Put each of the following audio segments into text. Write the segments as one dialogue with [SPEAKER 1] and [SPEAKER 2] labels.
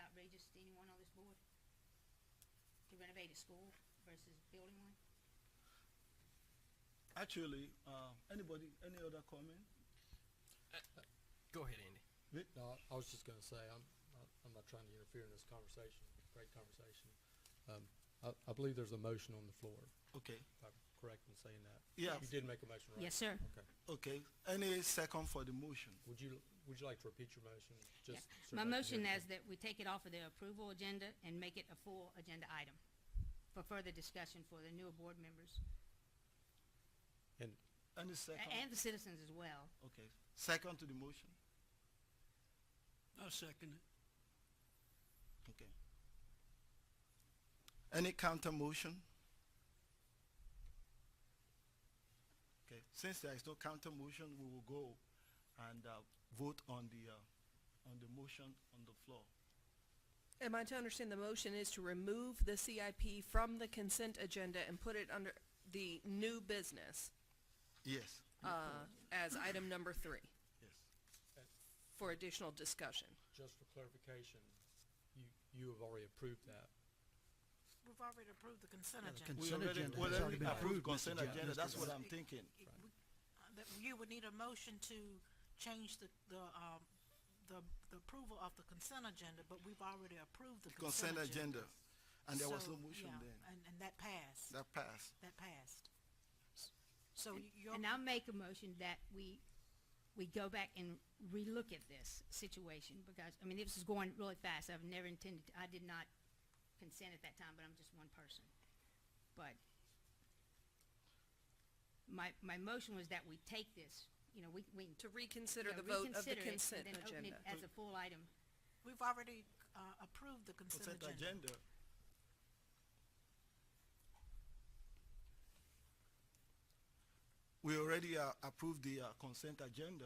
[SPEAKER 1] outrageous to anyone on this board? To renovate a school versus building one?
[SPEAKER 2] Actually, uh, anybody, any other comment?
[SPEAKER 3] Go ahead, Andy.
[SPEAKER 4] No, I- I was just gonna say, I'm, not- I'm not trying to interfere in this conversation, great conversation. Um, I, I believe there's a motion on the floor,
[SPEAKER 2] Okay,
[SPEAKER 4] if I'm correct in saying that.
[SPEAKER 2] Yeah.
[SPEAKER 4] You did make a motion, right?
[SPEAKER 1] Yes, sir.
[SPEAKER 4] Okay.
[SPEAKER 2] okay. Any second for the motion?
[SPEAKER 4] Would you, would you like to repeat your motion?
[SPEAKER 1] Yeah.
[SPEAKER 4] Just so
[SPEAKER 1] My
[SPEAKER 4] that I can
[SPEAKER 1] motion
[SPEAKER 4] hear it.
[SPEAKER 1] is that we take it off of the approval agenda and make it a full agenda item for further discussion for the newer board members
[SPEAKER 4] And
[SPEAKER 2] Any
[SPEAKER 1] a-
[SPEAKER 2] second?
[SPEAKER 1] and the citizens as well.
[SPEAKER 2] Okay, second to the motion?
[SPEAKER 5] I second it.
[SPEAKER 2] Okay. Any counter motion? Okay, since there is no counter motion, we will go and uh, vote on the, uh, on the motion on the floor.
[SPEAKER 6] Am I to understand the motion is to remove the CIP from the consent agenda and put it under the new business
[SPEAKER 2] Yes,
[SPEAKER 6] uh, as item number three
[SPEAKER 2] yes.
[SPEAKER 6] for additional discussion?
[SPEAKER 4] just for clarification, you, you have already approved that.
[SPEAKER 7] We've already approved the consent
[SPEAKER 8] Yeah, the
[SPEAKER 7] agenda.
[SPEAKER 2] We
[SPEAKER 8] Consent
[SPEAKER 2] already,
[SPEAKER 8] agenda
[SPEAKER 2] we
[SPEAKER 8] has
[SPEAKER 2] already
[SPEAKER 8] already been approved,
[SPEAKER 2] approved
[SPEAKER 8] Mr.
[SPEAKER 2] consent
[SPEAKER 8] Jack-
[SPEAKER 2] agenda,
[SPEAKER 8] Mr.
[SPEAKER 2] that's what
[SPEAKER 8] Jack.
[SPEAKER 2] I'm thinking.
[SPEAKER 7] It- we- uh, That you would need a motion to change the, the, um, the, the approval of the consent agenda, but we've already approved the
[SPEAKER 2] Consent
[SPEAKER 7] consent agenda.
[SPEAKER 2] agenda, and there was
[SPEAKER 7] So,
[SPEAKER 2] no motion
[SPEAKER 7] yeah,
[SPEAKER 2] then.
[SPEAKER 7] And, and that passed,
[SPEAKER 2] That passed.
[SPEAKER 7] that passed. So you're,
[SPEAKER 1] And I'll make a motion that we, we go back and relook at this situation because, I mean, this is going really fast. I've never intended, I did not consent at that time, but I'm just one person. But my, my motion was that we take this, you know, we, we.
[SPEAKER 6] To reconsider
[SPEAKER 1] yeah,
[SPEAKER 6] the vote of
[SPEAKER 1] reconsider it
[SPEAKER 6] the
[SPEAKER 1] and
[SPEAKER 6] consent
[SPEAKER 1] then open it
[SPEAKER 6] agenda.
[SPEAKER 1] As a full item.
[SPEAKER 7] we've already, uh, approved the consent
[SPEAKER 2] Consent
[SPEAKER 7] agenda.
[SPEAKER 2] agenda, we already uh, approved the uh, consent agenda,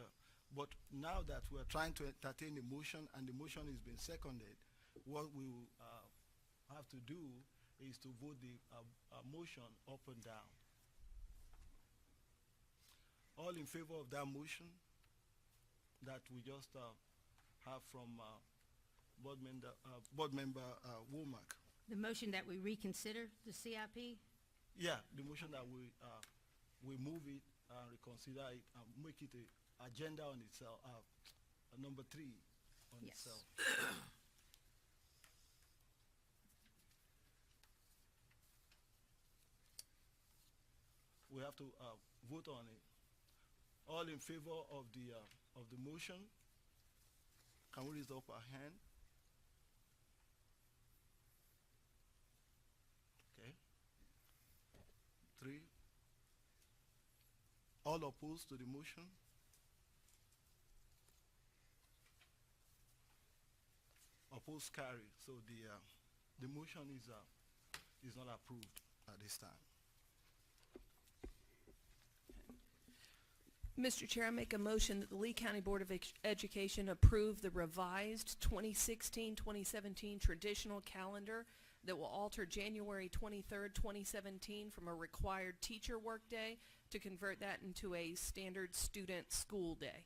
[SPEAKER 2] but now that we're trying to entertain the motion and the motion is being seconded, what we will, uh, have to do is to vote the, uh, uh, motion up and down. All in favor of that motion that we just, uh, have from, uh, board member, uh, board member, uh, Womack?
[SPEAKER 1] The motion that we reconsider the CIP,
[SPEAKER 2] Yeah, the motion that we, uh, we move it, uh, reconsider it, and make it a agenda on itself, uh, uh, number three on
[SPEAKER 1] Yes.
[SPEAKER 2] itself. We have to, uh, vote on it. All in favor of the, uh, of the motion? Can we raise up our hand? Okay. Three. All opposed to the motion? Opposed carry, so the, uh, the motion is, uh, is not approved at this time.
[SPEAKER 6] Mr. Chair, I make a motion that the Lee County Board of Ex- Education approve the revised 2016-2017 traditional calendar that will alter January 23rd, 2017 from a required teacher workday to convert that into a standard student school day.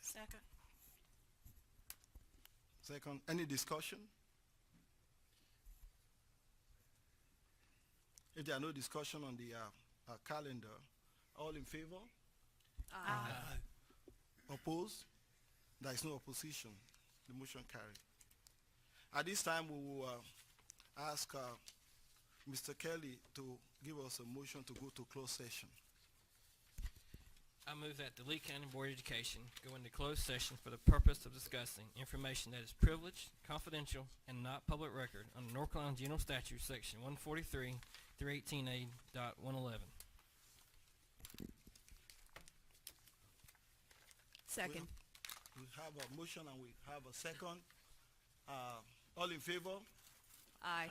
[SPEAKER 7] Second,
[SPEAKER 2] Second, any discussion? If there are no discussion on the, uh, uh, calendar, all in favor? Opposed? There is no opposition. The motion carried. At this time, we will uh, ask uh, Mr. Kelly to give us a motion to go to closed session.
[SPEAKER 3] I move that the Lee County Board of Education go into closed session for the purpose of discussing information that is privileged, confidential, and not public record under North Carolina General Statute, Section 143, 318A dot 111.
[SPEAKER 6] Second.
[SPEAKER 2] We have a motion and we have a second. Uh, All in favor?
[SPEAKER 6] Aye.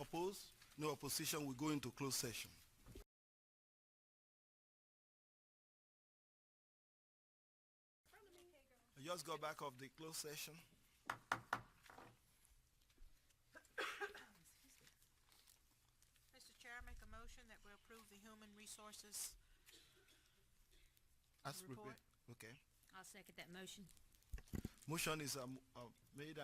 [SPEAKER 2] Opposed? No opposition. We go into closed session. I Just go back of the closed session.
[SPEAKER 7] Mr. Chair, I make a motion that we approve the human resources
[SPEAKER 2] As prepared.
[SPEAKER 7] Report.
[SPEAKER 2] Okay.
[SPEAKER 1] I'll second that motion.
[SPEAKER 2] Motion is um, uh, made